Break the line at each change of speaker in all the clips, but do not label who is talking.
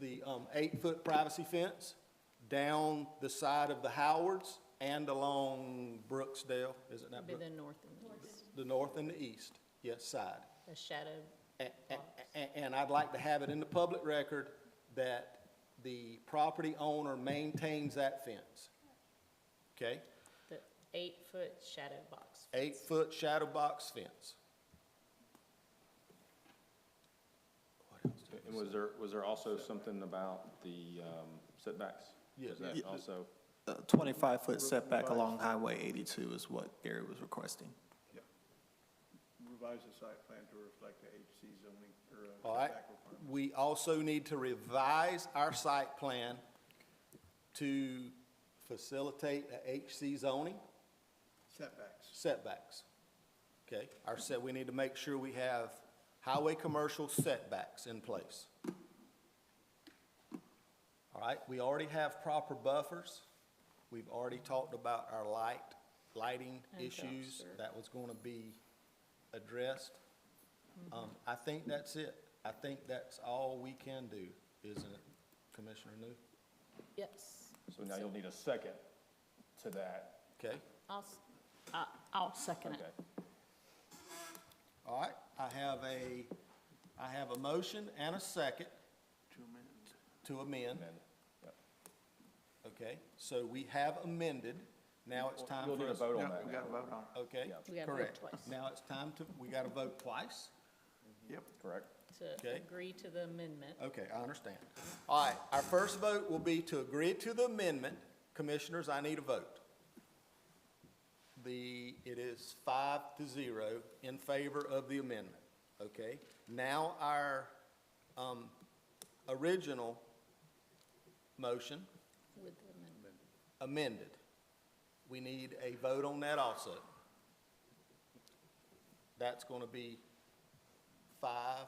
the um, eight-foot privacy fence down the side of the Howards and along Brooksdale, isn't that
Be
Brook?
the north and the east,
The north and the east, yes, side.
the shadow.
And, and I'd like to have it in the public record that the property owner maintains that fence. Okay?
The eight-foot shadow box.
Eight-foot shadow box fence. What else do we
And was there, was there also something about the um, setbacks?
Yeah.
Was that
Yeah.
also,
A 25-foot setback along Highway 82 is what Gary was requesting.
revise the site plan to reflect the HC zoning or uh,
All right,
setback requirement.
we also need to revise our site plan to facilitate a HC zoning
Setbacks.
setbacks. Okay, our set, we need to make sure we have highway commercial setbacks in place. All right, we already have proper buffers. We've already talked about our light, lighting
And
issues.
dumpster.
That was gonna be addressed. Um, I think that's it. I think that's all we can do, isn't it, Commissioner New?
Yes.
so now you'll need a second to that,
Okay?
I'll, s- I- I'll second it.
okay?
All right, I have a, I have a motion and a second. To amend.
And then, yep.
okay, so we have amended, now it's time
You'll
for
need a
us.
vote on that now,
vote on
Okay,
Yeah.
We gotta vote
correct.
twice.
Now it's time to, we gotta vote twice,
Yep.
correct?
To
Okay.
agree to the amendment.
okay, I understand. All right, our first vote will be to agree to the amendment, commissioners, I need a vote. The, it is five to zero in favor of the amendment, okay? Now our, um, original motion
With the amendment.
amended. We need a vote on that also. That's going to be five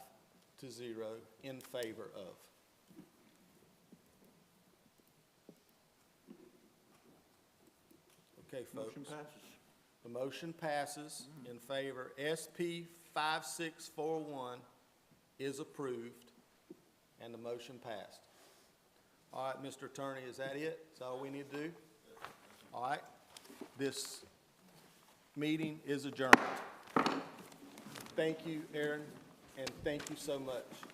to zero in favor of. Okay, folks.
Motion passes.
The motion passes in favor. SP 5641 is approved, and the motion passed. All right, Mr. Attorney, is that it? Is that all we need to do? All right, this meeting is adjourned. Thank you, Aaron, and thank you so much.